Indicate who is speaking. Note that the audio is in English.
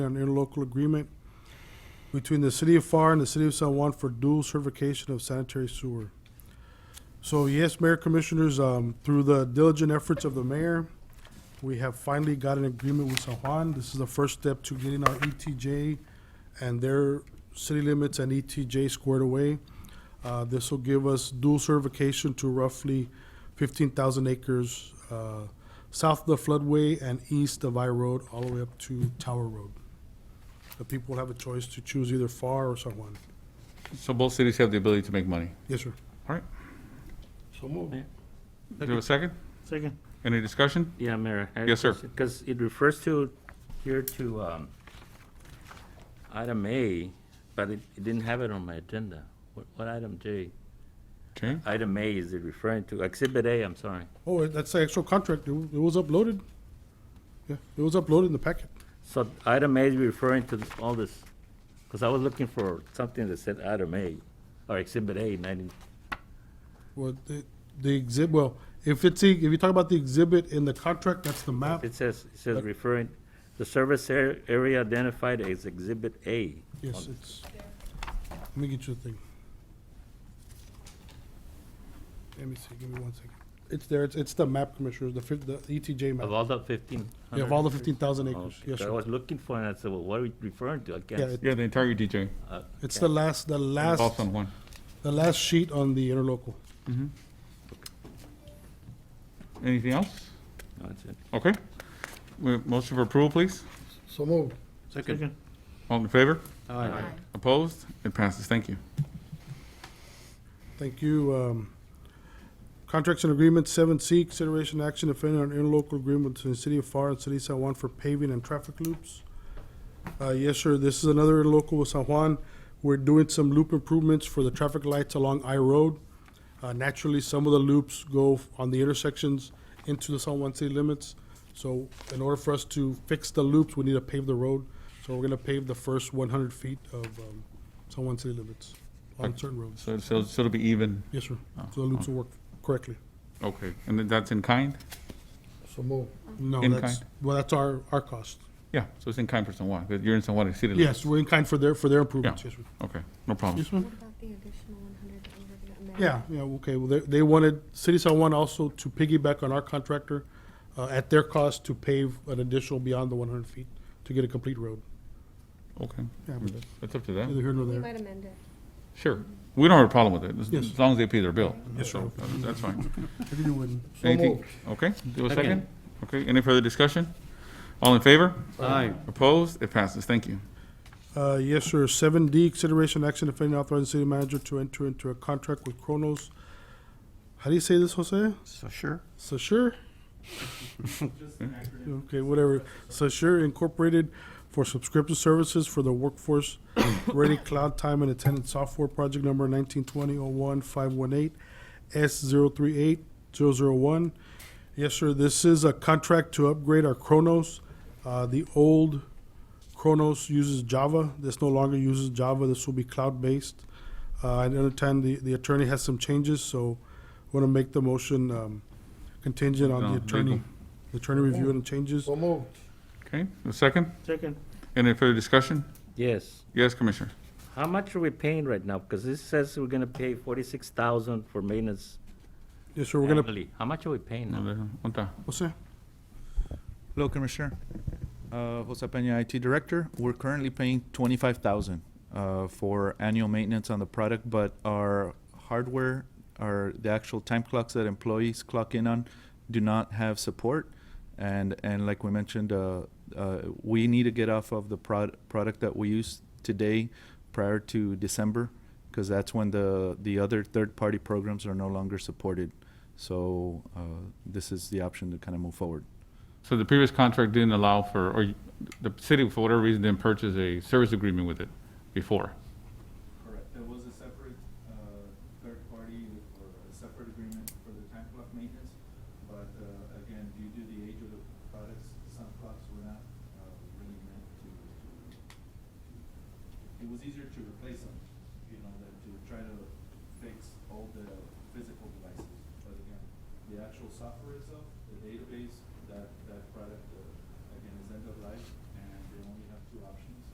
Speaker 1: an interlocal agreement between the city of FAR and the city of San Juan for dual certification of sanitary sewer. So yes, Mayor Commissioners, um, through the diligent efforts of the mayor, we have finally got an agreement with San Juan. This is the first step to getting our ETJ and their city limits and ETJ squared away. Uh, this will give us dual certification to roughly fifteen thousand acres, uh, south of the floodway and east of I Road, all the way up to Tower Road. The people have a choice to choose either FAR or San Juan.
Speaker 2: So both cities have the ability to make money.
Speaker 1: Yes, sir.
Speaker 2: All right.
Speaker 1: So move.
Speaker 2: Do you have a second?
Speaker 3: Second.
Speaker 2: Any discussion?
Speaker 3: Yeah, Mayor.
Speaker 2: Yes, sir.
Speaker 3: Because it refers to, here to um, item A, but it it didn't have it on my agenda. What what item J?
Speaker 2: Okay.
Speaker 3: Item A is it referring to, Exhibit A, I'm sorry.
Speaker 1: Oh, that's the actual contract. It it was uploaded. Yeah, it was uploaded in the packet.
Speaker 3: So item A is referring to all this, because I was looking for something that said item A, or Exhibit A, and I didn't,
Speaker 1: Well, the, the exhibit, well, if it's, the- if you talk about the exhibit in the contract, that's the map.
Speaker 3: it says, it says referring, the service ar- area identified as Exhibit A.
Speaker 1: Yes, it's, let me get you the thing. Let me see, give me one second. It's there, it's, it's the map, Commissioners, the fif, the ETJ
Speaker 3: Of
Speaker 1: map.
Speaker 3: all the fifteen
Speaker 1: You
Speaker 3: hundred?
Speaker 1: have all the fifteen thousand acres,
Speaker 3: Okay,
Speaker 1: yes,
Speaker 3: Oh, I
Speaker 1: sir.
Speaker 3: was looking for it, and I said, well, what are we referring to? I guess.
Speaker 1: it-
Speaker 2: Yeah, the entire E ETJ,
Speaker 1: It's the last, the last,
Speaker 2: all San Juan.
Speaker 1: the last sheet on the interlocal.
Speaker 2: Anything else?
Speaker 3: No, that's it.
Speaker 2: Okay. We- Motion for approval, please.
Speaker 1: So move.
Speaker 3: Second.
Speaker 2: All in favor? Opposed? It passes. Thank you.
Speaker 1: Thank you. Um, Contracts and agreements, seven C, consideration action if any on interlocal agreement between the city of FAR and city of San Juan for paving and traffic loops. Uh, Yes, sir, this is another interlocal with San Juan. We're doing some loop improvements for the traffic lights along I Road. Uh, Naturally, some of the loops go f- on the intersections into the San Juan city limits. So in order for us to fix the loops, we need to pave the road. So we're gonna pave the first one hundred feet of um, San Juan city limits on certain roads.
Speaker 2: So, so so it'll be even.
Speaker 1: Yes, sir.
Speaker 2: Oh,
Speaker 1: So the loops will work correctly.
Speaker 2: Okay. And then that's in kind?
Speaker 1: So move. No,
Speaker 2: In
Speaker 1: that's,
Speaker 2: kind?
Speaker 1: well, that's our, our cost.
Speaker 2: Yeah, so it's in kind for San Juan, but you're in San Juan, it's city.
Speaker 1: Yes, we're in kind for their, for their improvements,
Speaker 2: Yeah.
Speaker 1: yes, sir.
Speaker 2: Okay, no problem.
Speaker 1: Yes, ma'am.
Speaker 4: What about the additional one hundred that we were gonna?
Speaker 1: Yeah, yeah, okay, well, they, they wanted, City San Juan also to piggyback on our contractor, uh, at their cost to pave an additional beyond the one hundred feet to get a complete road.
Speaker 2: Okay.
Speaker 1: Yeah, but
Speaker 2: That's up to them.
Speaker 1: Neither here nor
Speaker 4: We
Speaker 1: there.
Speaker 4: might amend it.
Speaker 2: Sure. We don't have a problem with it, as-
Speaker 1: Yes.
Speaker 2: as long as they pay their bill.
Speaker 1: Yes, sir.
Speaker 2: So, uh, That's fine.
Speaker 1: I think it wouldn't.
Speaker 2: Anything? Okay, do a second?
Speaker 3: Second.
Speaker 2: Okay, any further discussion? All in favor?
Speaker 3: Aye.
Speaker 2: Opposed? It passes, thank you.
Speaker 1: Uh, yes, sir. Seven D, consideration action if any authorizing city manager to enter into a contract with Kronos. How do you say this, Jose? So sure. Okay, whatever. So sure Incorporated for subscription services for the workforce ready cloud time and attendance software project number nineteen twenty oh one five one eight S zero three eight zero zero one. Yes, sir. This is a contract to upgrade our Kronos. Uh, the old Kronos uses Java. This no longer uses Java. This will be cloud-based. Uh, I understand the, the attorney has some changes, so want to make the motion um, contingent on
Speaker 2: No,
Speaker 1: the attorney,
Speaker 2: legal.
Speaker 1: the attorney reviewing the changes.
Speaker 2: Okay, a second?
Speaker 3: Second.
Speaker 2: Any further discussion?
Speaker 3: Yes.
Speaker 2: Yes, Commissioner.
Speaker 3: How much are we paying right now? Because this says we're gonna pay forty-six thousand for maintenance
Speaker 1: Yes, sir, we're going to,
Speaker 3: annually. How much are we paying now?
Speaker 2: Unta.
Speaker 1: what's that?
Speaker 5: Hello, Commissioner. Uh, Jose Peña, IT Director. We're currently paying twenty-five thousand uh, for annual maintenance on the product, but our hardware, our the actual time clocks that employees clock in on, do not have support. And and like we mentioned, uh, uh, we need to get off of the prod- product that we use today prior to December, because that's when the the other third-party programs are no longer supported. So uh, this is the option to kind of move forward.
Speaker 2: So the previous contract didn't allow for, or the city, for whatever reason, didn't purchase a service agreement with it before.
Speaker 6: Correct, there was a separate, uh, third party or a separate agreement for the time clock maintenance, but, uh, again, due to the age of the products, some clocks were not, uh, really meant to, to, it was easier to replace them, you know, than to try to fix all the physical devices. But again, the actual software itself, the database, that, that product, uh, again, is end of life, and they only have
Speaker 5: two options.